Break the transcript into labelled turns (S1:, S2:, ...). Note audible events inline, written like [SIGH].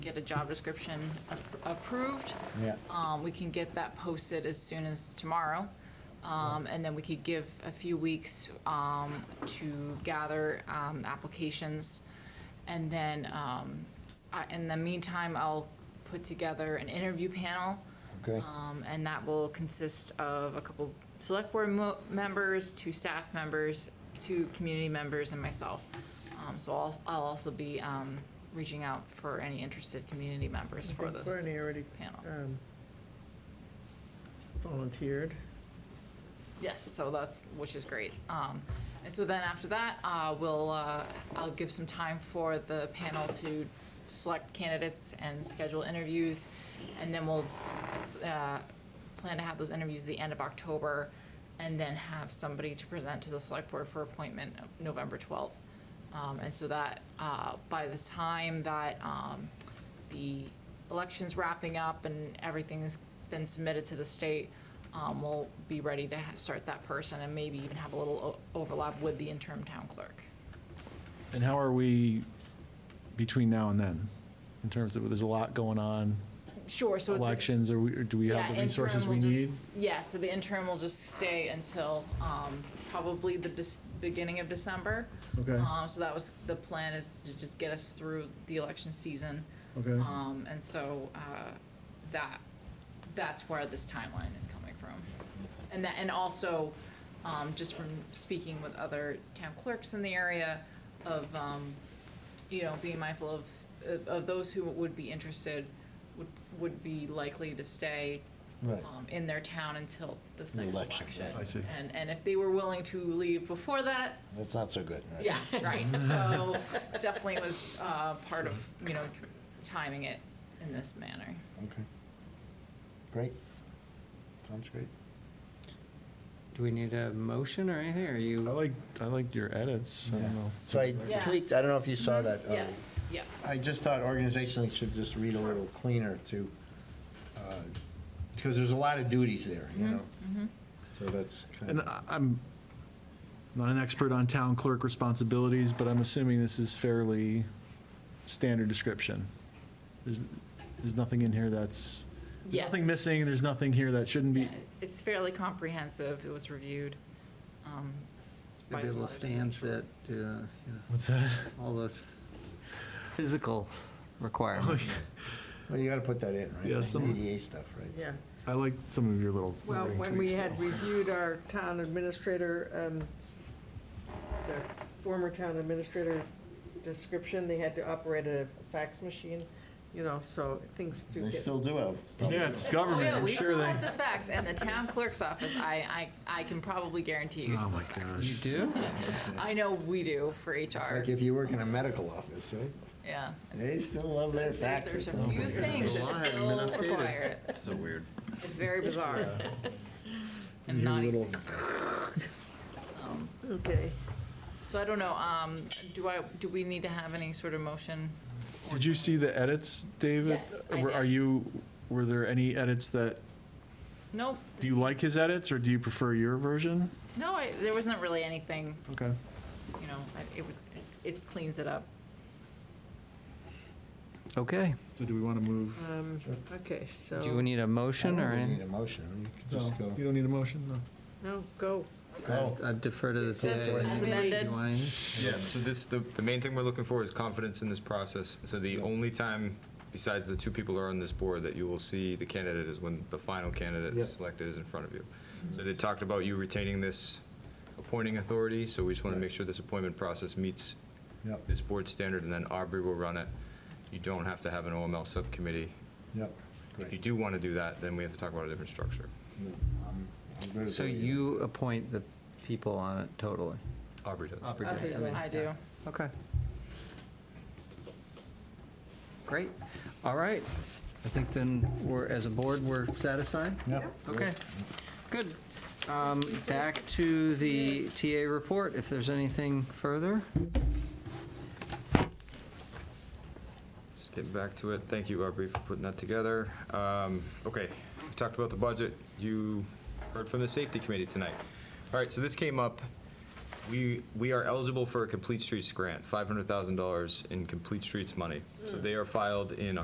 S1: get a job description a- approved.
S2: Yeah.
S1: Um, we can get that posted as soon as tomorrow. Um, and then we could give a few weeks, um, to gather, um, applications. And then, um, I- in the meantime, I'll put together an interview panel.
S2: Okay.
S1: Um, and that will consist of a couple select board mo- members, two staff members, two community members, and myself. Um, so I'll, I'll also be, um, reaching out for any interested community members
S3: I
S1: for
S3: think
S1: this.
S3: Bernie already
S1: panel.
S3: um, volunteered.
S1: Yes, so that's, which is great. Um, And so then after that, uh, we'll, uh, I'll give some time for the panel to select candidates and schedule interviews. And then we'll uh, plan to have those interviews at the end of October and then have somebody to present to the select board for appointment November 12th. Um, And so that, uh, by the time that um, the election's wrapping up and everything's been submitted to the state, um, we'll be ready to ha- start that person and maybe even have a little o- overlap with the interim town clerk.
S4: And how are we between now and then? In terms of, there's a lot going on,
S1: Sure, so it's.
S4: elections, or we- or do we
S1: Yeah,
S4: have the
S1: interim
S4: resources
S1: will
S4: we need?
S1: just- Yeah, so the interim will just stay until, um, probably the dis- beginning of December.
S4: Okay.
S1: Um, so that was, the plan is to just get us through the election season.
S4: Okay.
S1: Um, and so, uh, that, that's where this timeline is coming from. And that, and also, um, just from speaking with other town clerks in the area of, um, you know, being mindful of- of, of those who would be interested, would, would be likely to stay
S2: Right.
S1: um, in their town until this next
S2: Election,
S1: election.
S2: right.
S4: I see.
S1: And, and if they were willing to leave before that,
S2: That's not so good, right? [LAUGHS]
S1: yeah, right, so definitely was uh, part of, you know, timing it in this manner.
S2: Okay. Great. Sounds great.
S5: Do we need a motion or anything, or
S4: I
S5: you?
S4: like, I like your edits, I
S2: Yeah.
S4: don't know.
S2: So I
S1: Yeah.
S2: tweaked, I don't know if you saw that. uh,
S1: Yes, yeah,
S2: I just thought organizationally should just read a little cleaner to, because there's a lot of duties there, you
S1: Mm-hmm.
S2: know? So that's kind
S4: And uh,
S2: of,
S4: I- I'm not an expert on town clerk responsibilities, but I'm assuming this is fairly standard description. There's, there's nothing in here that's, there's nothing
S1: Yes.
S4: missing, there's nothing here that shouldn't be.
S1: Yeah, it's fairly comprehensive, it was reviewed. um, it's by
S5: Bible
S1: Swatter
S5: stands
S1: Center.
S5: that, uh, you know,
S4: What's that?
S5: all those physical requirements.
S2: well, you got to put that in, right?
S4: Yeah,
S2: Like
S4: some-
S2: ADA stuff, right?
S3: Yeah.
S4: I like some of your little.
S3: Well,
S4: wording
S3: when we
S4: tweaks,
S3: had
S4: though.
S3: reviewed our town administrator, um, the former town administrator description, they had to operate a fax machine, you know, so things do
S2: They
S3: get.
S2: still do have stuff.
S4: Yeah, it's
S1: Oh,
S4: government,
S1: yeah,
S4: I'm
S1: we
S4: sure
S1: still
S4: they.
S1: have to fax, and the town clerk's office, I, I, I can probably guarantee you
S4: Oh,
S1: still
S4: my
S1: fax.
S4: gosh.
S5: You do?
S1: I know we do for
S2: It's
S1: HR,
S2: like if you work in a medical office, right?
S1: yeah.
S2: They still have their
S1: There's
S2: faxes.
S1: there's a few things that
S5: Alarm and
S1: still
S5: updated.
S1: require it.
S6: So weird.
S1: It's very
S2: [LAUGHS]
S1: bizarre. And
S4: Your
S1: not easy.
S4: little-
S1: Um,
S3: Okay.
S1: So I don't know, um, do I, do we need to have any sort of motion?
S4: Did you see the edits, David?
S1: Yes, I
S4: Were- Are
S1: did.
S4: you, were there any edits that,
S1: Nope.
S4: do you like his edits, or do you prefer your version?
S1: No, I, there wasn't really anything,
S4: Okay.
S1: you know, I- it, would- it cleans it up.
S5: Okay.
S4: So do we want to move?
S3: Um, Okay, so.
S5: Do we need a
S2: I don't
S5: motion or
S2: think you
S5: any?
S2: Need a motion, you
S4: No,
S2: can just go.
S4: You don't need a motion, no?
S3: No, go.
S2: Go.
S5: I defer to the
S3: It's- it's-
S5: CAA.
S3: it's
S1: As
S3: Maybe.
S1: amended,
S5: You want any?
S6: Yeah, so this, the, the main thing we're looking for is confidence in this process. So the only time, besides the two people who are on this board, that you will see the candidate is when the final candidate
S2: Yeah.
S6: is selected is in front of you. So they talked about you retaining this appointing authority, so we just want to make sure this appointment process meets
S2: Yep,
S6: this board standard, and then Aubrey will run it. You don't have to have an OML subcommittee.
S2: yep.
S6: If
S2: great.
S6: you do want to do that, then we have to talk about a different structure.
S2: No, I'm- I'm good with
S5: So
S2: that, yeah.
S5: you appoint the people on it totally?
S6: Aubrey does.
S5: Aubrey
S1: I
S5: does.
S1: do, I do.
S5: Okay. Great. All right. I think then we're, as a board, we're satisfied?
S2: Yep.
S5: Okay, good. Um, Back to the TA report, if there's anything further.
S6: Just getting back to it. Thank you, Aubrey, for putting that together. Um, Okay, we talked about the budget. You heard from the safety committee tonight. All right, so this came up. We, we are eligible for a Complete Streets grant, $500,000 in Complete Streets money. So they are filed in